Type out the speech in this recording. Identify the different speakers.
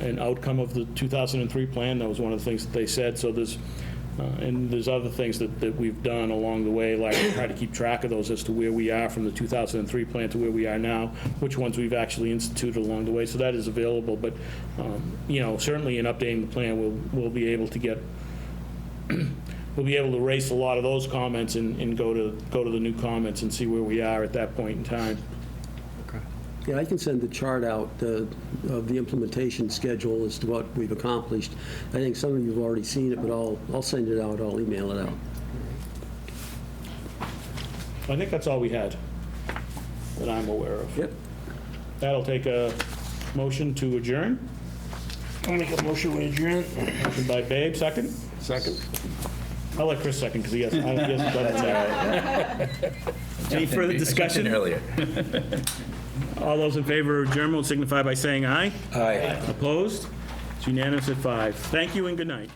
Speaker 1: an outcome of the 2003 plan. That was one of the things that they said. So there's, uh, and there's other things that, that we've done along the way, like try to keep track of those as to where we are from the 2003 plan to where we are now, which ones we've actually instituted along the way. So that is available. But, um, you know, certainly in updating the plan, we'll, we'll be able to get we'll be able to erase a lot of those comments and, and go to, go to the new comments and see where we are at that point in time.
Speaker 2: Yeah, I can send the chart out uh, of the implementation schedule as to what we've accomplished. I think some of you have already seen it, but I'll, I'll send it out, I'll email it out.
Speaker 1: I think that's all we had that I'm aware of.
Speaker 2: Yep.
Speaker 1: That'll take a motion to adjourn.
Speaker 3: I'll make a motion to adjourn.
Speaker 1: Motion by Babe, second.
Speaker 3: Second.
Speaker 1: I'll let Chris second because he hasn't, he hasn't done it yet. Any further discussion?
Speaker 4: earlier.
Speaker 1: All those in favor of adjournment will signify by saying aye.
Speaker 4: Aye.
Speaker 1: Opposed? It's unanimous at five. Thank you and good night.